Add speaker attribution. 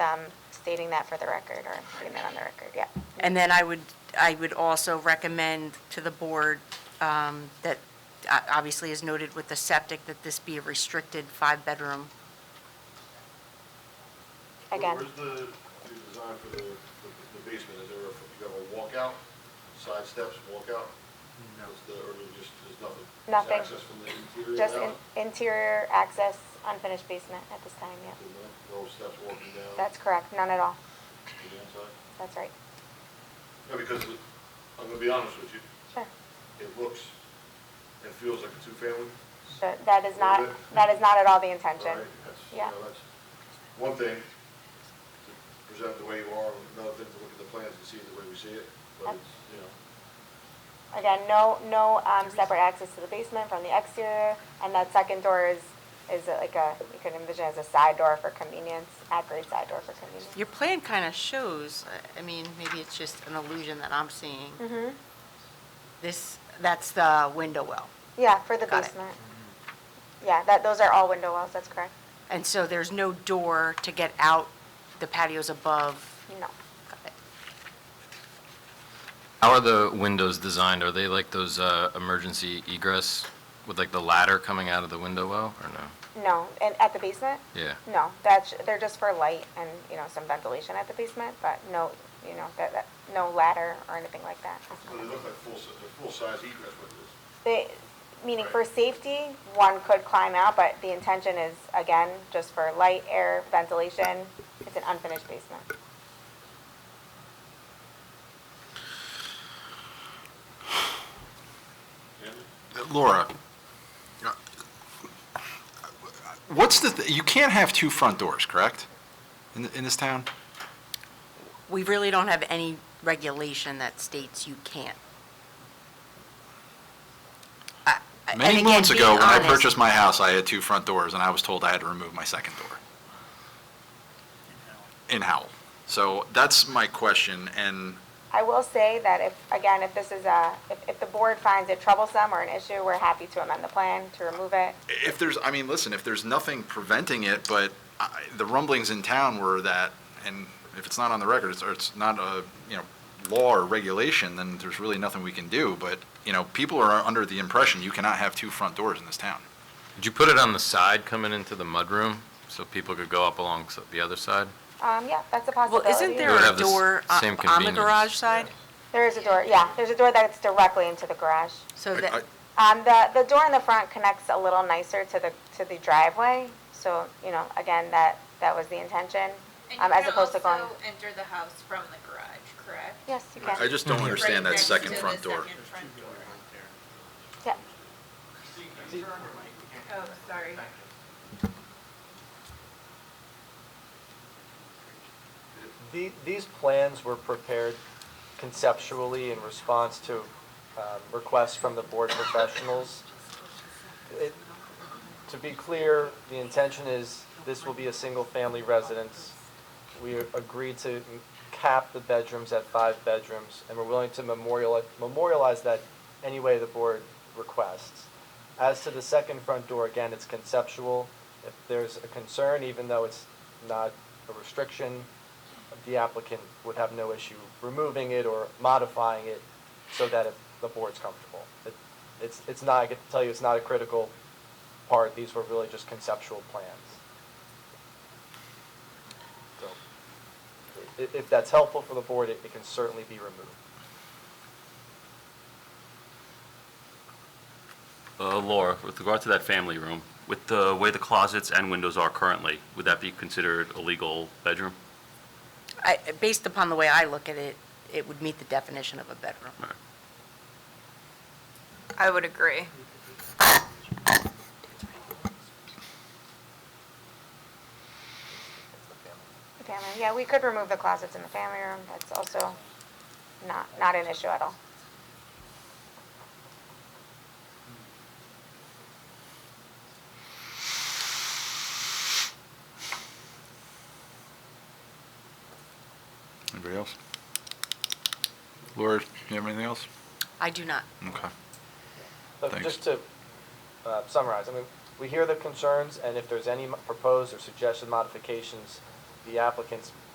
Speaker 1: um, stating that for the record, or putting that on the record, yeah.
Speaker 2: And then I would, I would also recommend to the board um, that, uh, obviously as noted with the septic, that this be a restricted five-bedroom.
Speaker 1: Again,
Speaker 3: Where's the, the design for the, the the basement, is there, a- you have a walkout, side steps, walkout? Is the, or there's just, there's nothing? Just
Speaker 1: Nothing.
Speaker 3: Access from the interior
Speaker 1: just
Speaker 3: out?
Speaker 1: in- interior access, unfinished basement at this time, yeah.
Speaker 3: No steps walking down?
Speaker 1: That's correct, none at all,
Speaker 3: To the inside?
Speaker 1: that's right,
Speaker 3: Yeah, because it- I'm gonna be honest with you,
Speaker 1: sure.
Speaker 3: it looks and feels like a two-family.
Speaker 1: So That is not, that is not at all the intention.
Speaker 3: Right, that's, you
Speaker 1: Yeah.
Speaker 3: know, that's one thing to present the way you are, and another thing to look at the plans and see it the way we see it, but it's, you know.
Speaker 1: Again, no, no um, separate access to the basement from the exterior, and that second door is, is like a, you can envision as a side door for convenience, at-grade side door for convenience.
Speaker 2: Your plan kind of shows, uh, I- I mean, maybe it's just an illusion that I'm seeing. This, that's the window well.
Speaker 1: Yeah, for the
Speaker 2: Got it.
Speaker 1: basement. Yeah, that, those are all window wells, that's correct.
Speaker 2: And so there's no door to get out the patios above.
Speaker 1: No.
Speaker 2: Got it.
Speaker 4: How are the windows designed? Are they like those uh, emergency egress with like the ladder coming out of the window well, or no?
Speaker 1: No, and at the basement?
Speaker 4: Yeah.
Speaker 1: No, that's, they're just for light and, you know, some ventilation at the basement, but no, you know, that, that, no ladder or anything like that.
Speaker 3: Well, they look like full, si- they're full-size egress windows.
Speaker 1: They, meaning for safety, one could climb out, but the intention is, again, just for light, air, ventilation. It's an unfinished basement.
Speaker 3: And
Speaker 5: Laura, what's the, th- you can't have two front doors, correct? In, in this town?
Speaker 2: We really don't have any regulation that states you can't. I- I- and
Speaker 5: Many
Speaker 2: again,
Speaker 5: months ago,
Speaker 2: being
Speaker 5: when I
Speaker 2: honest-
Speaker 5: purchased my house, I had two front doors, and I was told I had to remove my second door. In Howell. So that's my question, and
Speaker 1: I will say that if, again, if this is a, if, if the board finds it troublesome or an issue, we're happy to amend the plan to remove it.
Speaker 5: if there's, I mean, listen, if there's nothing preventing it, but I- the rumblings in town were that, and if it's not on the record, it's- or it's not a, you know, law or regulation, then there's really nothing we can do, but, you know, people are under the impression you cannot have two front doors in this town.
Speaker 4: Did you put it on the side coming into the mudroom so people could go up along s- the other side?
Speaker 1: Um, yeah, that's a
Speaker 2: Well,
Speaker 1: possibility.
Speaker 2: isn't
Speaker 4: They would
Speaker 2: there a
Speaker 4: have the s-
Speaker 2: door uh,
Speaker 4: same
Speaker 2: on the
Speaker 4: convenience.
Speaker 2: garage side?
Speaker 1: There is a door, yeah, there's a door that's directly into the garage.
Speaker 2: So
Speaker 5: I-
Speaker 2: that,
Speaker 5: I-
Speaker 1: Um, the, the door in the front connects a little nicer to the, to the driveway, so, you know, again, that, that was the intention, um, as opposed to going.
Speaker 6: And you can also enter the house from the garage, correct?
Speaker 1: Yes, you
Speaker 5: I
Speaker 1: can,
Speaker 5: just don't understand
Speaker 6: Right
Speaker 5: that
Speaker 6: next
Speaker 5: second
Speaker 6: to the
Speaker 5: front door.
Speaker 6: second front door.
Speaker 1: yeah,
Speaker 6: Oh, sorry.
Speaker 7: The- These plans were prepared conceptually in response to um, requests from the board professionals. It- To be clear, the intention is this will be a single-family residence. We agreed to m- cap the bedrooms at five bedrooms, and we're willing to memoriali- memorialize that any way the board requests. As to the second front door, again, it's conceptual. If there's a concern, even though it's not a restriction, the applicant would have no issue removing it or modifying it so that if the board's comfortable. It- It's, it's not, I can tell you, it's not a critical part, these were really just conceptual plans. So, i- If, if that's helpful for the board, it it can certainly be removed.
Speaker 8: Uh, Laura, with regard to that family room, with the way the closets and windows are currently, would that be considered a legal bedroom?
Speaker 2: I- based upon the way I look at it, it would meet the definition of a bedroom.
Speaker 8: All right.
Speaker 6: I would agree.
Speaker 1: the family, yeah, we could remove the closets in the family room, that's also not, not an issue at all.
Speaker 5: Anybody else? Laura, do you have anything else?
Speaker 2: I do not.
Speaker 5: Okay.
Speaker 7: Look,
Speaker 5: Thanks.
Speaker 7: just to uh, summarize, I mean, we hear the concerns, and if there's any mo- proposed or suggested modifications, the applicant's